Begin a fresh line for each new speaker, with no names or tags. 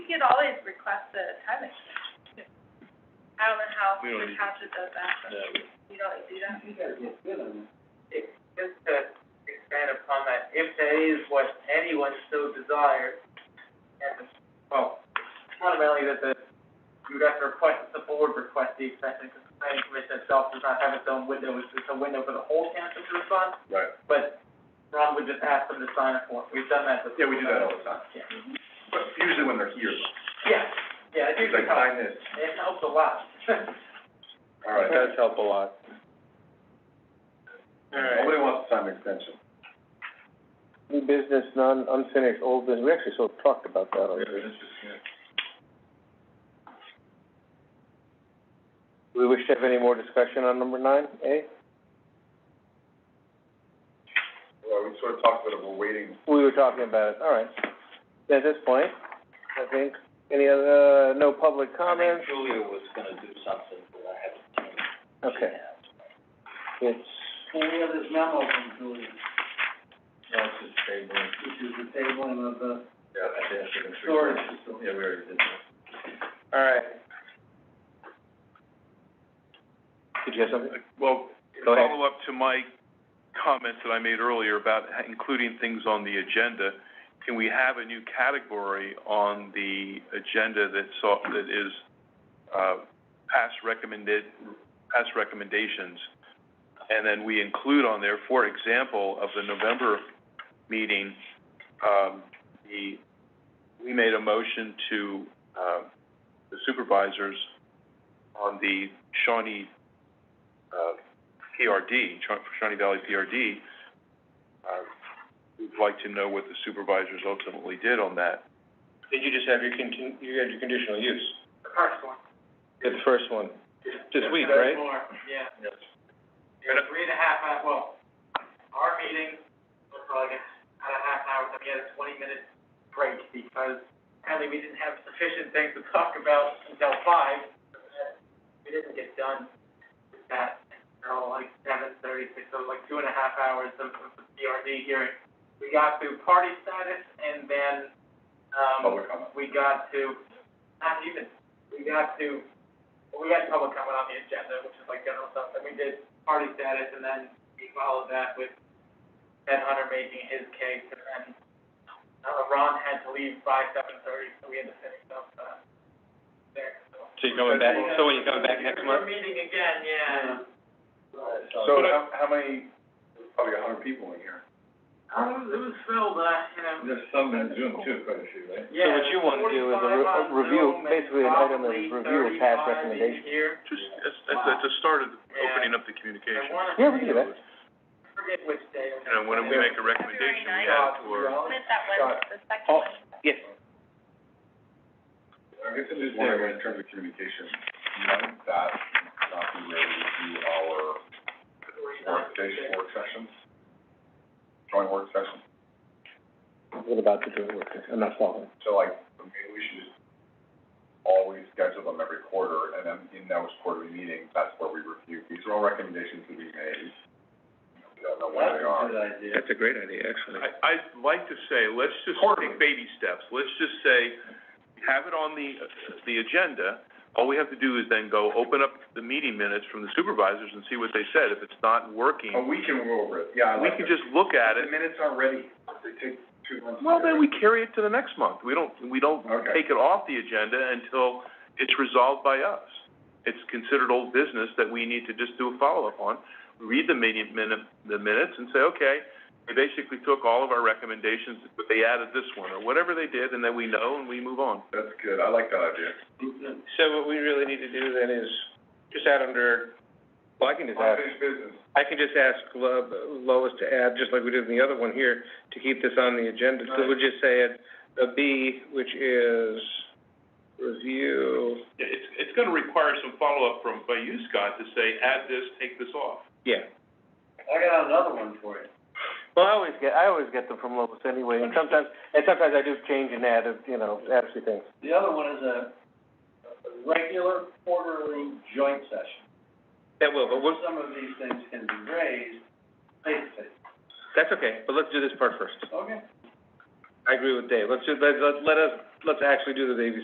could always request a time extension. I don't know how
We don't need-
Natasha does that, but
Yeah, we-
you don't do that.
Just to expand upon that, if that is what anyone so desires, and, well, fundamentally that the, you would have to request, the board request the extension, because the planning commission itself does not have its own window, it's just a window for the whole council to respond,
Right.
but Ron would just ask them to sign a form, we've done that before.
Yeah, we do that all the time.
Yeah.
But usually when they're here,
Yeah, yeah, it
it's
usually
like,
helps,
sign this.
it helps a lot.
All right.
It does help a lot.
Nobody wants to sign an extension.
New business, non, unfinished, old business, we actually sort of talked about that already. Do we wish to have any more discussion on number nine, eh? A?
Well, we sort of talked about it, we're waiting.
We were talking about it, all right. At this point, I think, any other, uh, no public comments?
Julia was gonna do something, but I haven't seen it.
Okay, it's,
And we have this memo from Julian,
That's just tabling.
which is the tabling of the
Yeah, I think I should have.
Storage
Yeah, we already did that.
all right. Did you have something?
Well,
Go ahead.
follow up to my comments that I made earlier about ha- including things on the agenda. Can we have a new category on the agenda that's, off- that is, uh, past recommended, past recommendations? And then we include on there, for example, of the November meeting, um, the, we made a motion to, uh, the supervisors on the Shawnee, uh, PRD, Shaw- Shawnee Valley PRD, uh, we'd like to know what the supervisors ultimately did on that.
Did you just have your contin- you had your conditional use?
first one.
Good, the first one, this week,
There's
right?
more, yeah.
Yes.
You're at three and a half, hour- well, our meeting was like a, about a half an hour, so we had a twenty minute break because apparently we didn't have sufficient things to talk about until five. We didn't get done with that until like seven thirty, so like two and a half hours of, of the PRD hearing. We got to party status and then, um.
Public comment.
we got to, not even, we got to, well, we had public comment on the agenda, which is like general stuff, then we did party status, and then we followed that with Ted Hunter making his case, and then, uh, Ron had to leave by seven thirty, so we had to finish up, uh, there, so.
So you're coming back, so when you're coming back next
We're
month?
meeting again, yeah.
So
uh,
how, how many, there's probably a hundred people in here.
Um, it was filled, but I, you know.
There's some in Zoom too, quite a few, right?
So what you wanna do is a re- a review, basically an item of review of past recommendations.
Just, that's, that's, that's a start of opening up the communication.
I wanna.
Yeah, we can do that.
forget which day.
You know, when we make a recommendation, we add it to our.
Submit that one,
Got
the second
Oh.
one.
Yes.
I guess I'm just wondering, in terms of communication, might that not be related to our work station, work sessions? Joint work sessions?
What about the joint work, I'm not following.
So like, maybe we should just always schedule them every quarter, and then in those quarterly meetings, that's where we review. These are all recommendations that we made. We don't know where they are.
That's a great idea, actually.
I, I'd like to say, let's just
Quarterly.
take baby steps. Let's just say, have it on the, the agenda. All we have to do is then go open up the meeting minutes from the supervisors and see what they said. If it's not working,
Oh, we can go over it, yeah, I
we
like
can
it.
just look at
The
it.
minutes aren't ready. They take two months. to
Well,
get
then
ready.
we carry it to the next month. We don't, we don't
Okay.
take it off the agenda until it's resolved by us. It's considered old business that we need to just do a follow-up on. Read the meeting minute, the minutes and say, okay, they basically took all of our recommendations, but they added this one, or whatever they did, and then we know and we move on.
That's good, I like that idea.
So what we really need to do then is just add under, well, I can just ask,
Unfinished business.
I can just ask Lo- Lois to add, just like we did in the other one here, to keep this on the agenda. So we'll just say it, a B, which is review,
It's, it's gonna require some follow-up from, by you, Scott, to say, add this, take this off.
yeah.
I got another one for you.
Well, I always get, I always get them from Lois anyway, and sometimes, and sometimes I do change and add, you know, add a few things.
The other one is a, a regular quarterly joint session.
That will, but we'll,
Some of these things can be raised face to face.
that's okay, but let's do this part first.
Okay.
I agree with Dave. Let's do, let, let, let us, let's actually do the baby